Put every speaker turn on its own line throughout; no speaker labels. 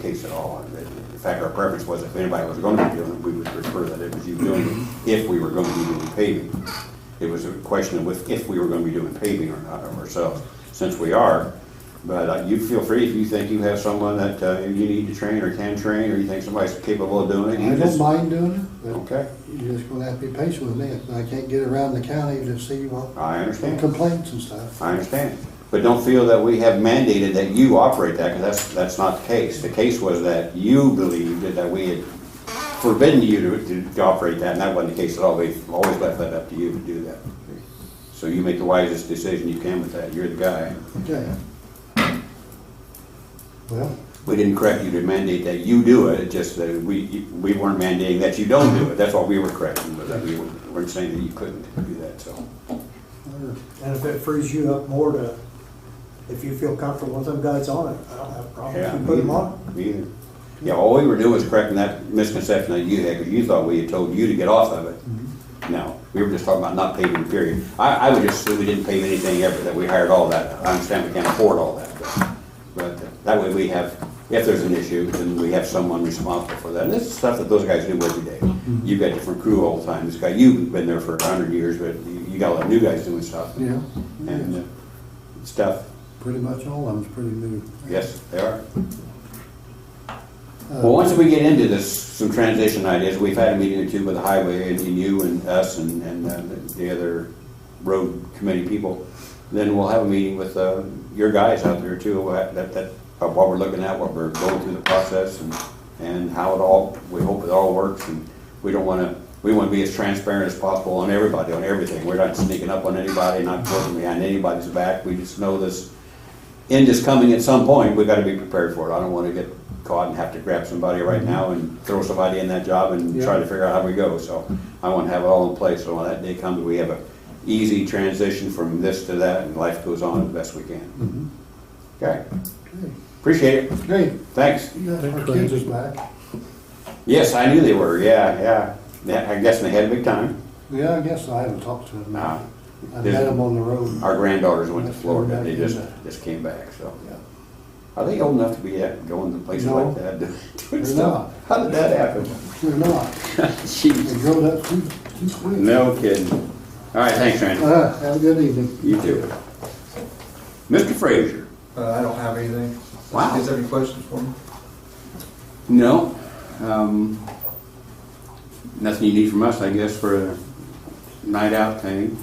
case at all. And that- In fact, our preference was if anybody was going to be doing it, we would prefer that it was you doing it if we were going to be doing paving. It was a question of with- if we were going to be doing paving or not of ourselves, since we are. But uh, you feel free, if you think you have someone that uh, you need to train or can train, or you think somebody's capable of doing it. you
I don't
just-
mind doing it, but
Okay,
you're just gonna have to be patient with me. If I can't get around the county to see what
I understand.
complaints and stuff.
I understand. But don't feel that we have mandated that you operate that, because that's, that's not the case. The case was that you believed that we had forbidden you to, to- to operate that, and that wasn't the case at all. We've always left that up to you to do that. So you make the wisest decision you can with that. You're the guy.
Okay. Well,
We didn't correct you to mandate that you do it, it's just that we, we weren't mandating that you don't do it. That's what we were correcting, was that we weren't saying that you couldn't do that, so.
And if it frees you up more to, if you feel comfortable with them guys on it, I don't have a problem.
Yeah,
if You
me
put them
either.
on.
Me either. Yeah, all we were doing was correcting that misconception that you had, because you thought we had told you to get off of
Mm-hmm.
it. No, we were just talking about not paving, period. I, I would just assume we didn't pave anything ever, that we hired all that. I understand we can't afford all that, but, but that way we have, if there's an issue, then we have someone responsible for that. And this is stuff that those guys do every day.
Mm-hmm.
You've got different crew all the time. This guy, you've been there for a hundred years, but you, you got a lot of new guys doing stuff.
yeah,
And uh, stuff,
pretty much all of them's pretty new.
yes, they are.
Uh,
Well, once we get into this, some transition ideas, we've had a meeting or two with the highway and you and us and, and uh, the other road committee people. Then we'll have a meeting with, uh, your guys out there too, uh, that, that, of what we're looking at, what we're going through the process and, and how it all, we hope it all works and we don't wanna, we wanna be as transparent as possible on everybody, on everything. We're not sneaking up on anybody, not working behind anybody's back. We just know this, end is coming at some point, we've got to be prepared for it. I don't want to get caught and have to grab somebody right
Mm-hmm.
now and throw somebody in that job and try to figure out how we go. So I want to have it all in place, so when that day comes, we have a easy transition from this to that, and life goes on the best we can.
mhm.
Okay,
Okay.
appreciate it,
Hey,
thanks.
you got our
Thank you.
kids back.
Yes, I knew they were, yeah, yeah. Yeah, I guess they had a big time.
Yeah, I guess I haven't talked to them.
Nah.
I met them on the road.
Our granddaughters went to Florida, they just, just came back, so.
Yeah.
Are they old enough to be at- going to places like
No.
that?
They're
doing stuff? How did that happen?
They're not,
Jeez.
they grown up too, too quick.
No kidding. All right, thanks, Randy.
Uh, Have a good evening.
You too. Mr. Frazier?
Uh, I don't have anything.
Wow.
You guys have any questions for me?
No. Um, Nothing you need from us, I guess, for a night out thing.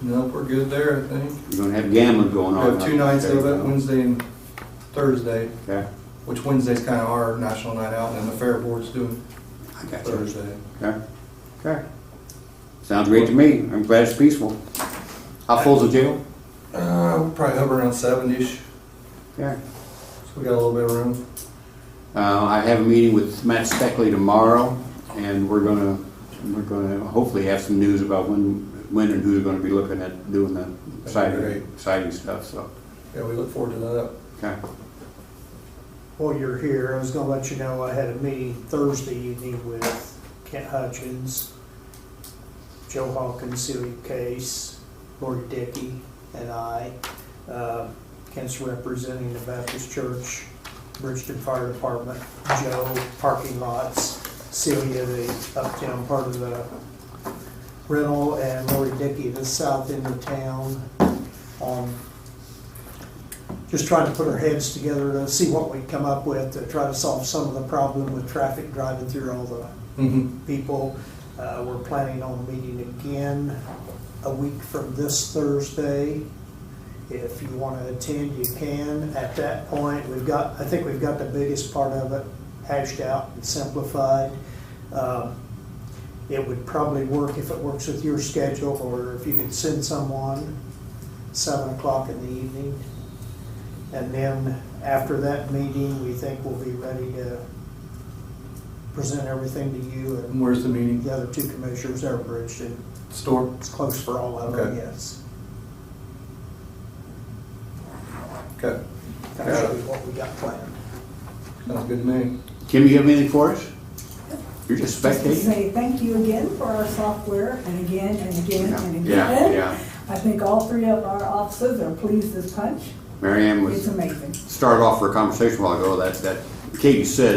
Nope, we're good there, I think.
You're gonna have gambling going
We
on.
have two nights of it, Wednesday and Thursday,
Okay,
which Wednesday's kind of our national night out, and then the fair board's doing
I got you.
Thursday.
Okay, okay. Sounds great to me. I'm glad it's peaceful. How full's the jail?
Uh, we'll probably hover around seven-ish,
Okay.
so we got a little bit of room.
Uh, I have a meeting with Matt Steckley tomorrow, and we're gonna, we're gonna hopefully have some news about when, when and who's gonna be looking at doing the siding,
Great.
siding stuff, so,
Yeah, we look forward to that.
okay.
While you're here, I was gonna let you know I had a meeting Thursday evening with Kent Hutchins, Joe Hawkins, Celia Case, Lori Dickey, and I. Uh, Kent's representing the Baptist Church, Bridgeton Fire Department, Joe, parking lots, Celia, the uptown part of the rental, and Lori Dickey, the south end of town, on just trying to put our heads together to see what we come up with, to try to solve some of the problem with traffic driving through all the
Mm-hmm.
people. Uh, We're planning on meeting again a week from this Thursday. If you want to attend, you can. At that point, we've got, I think we've got the biggest part of it hashed out and simplified. Um, It would probably work if it works with your schedule, or if you could send someone seven o'clock in the evening. And then after that meeting, we think we'll be ready to present everything to you and
And where's the meeting?
the other two commissioners are bridged, and
Store?
it's close for all of them,
Okay.
yes.
Okay,
That's really what we got planned.
sounds good to me.
Kim, you have anything for us? You're just
Just to
spectating?
say thank you again for our software, and again, and again, and
Yeah,
again.
yeah.
I think all three of our officers are pleased as punch.
Mary Ann
It's
was,
amazing.
started off for a conversation a while ago, that, that Katie said,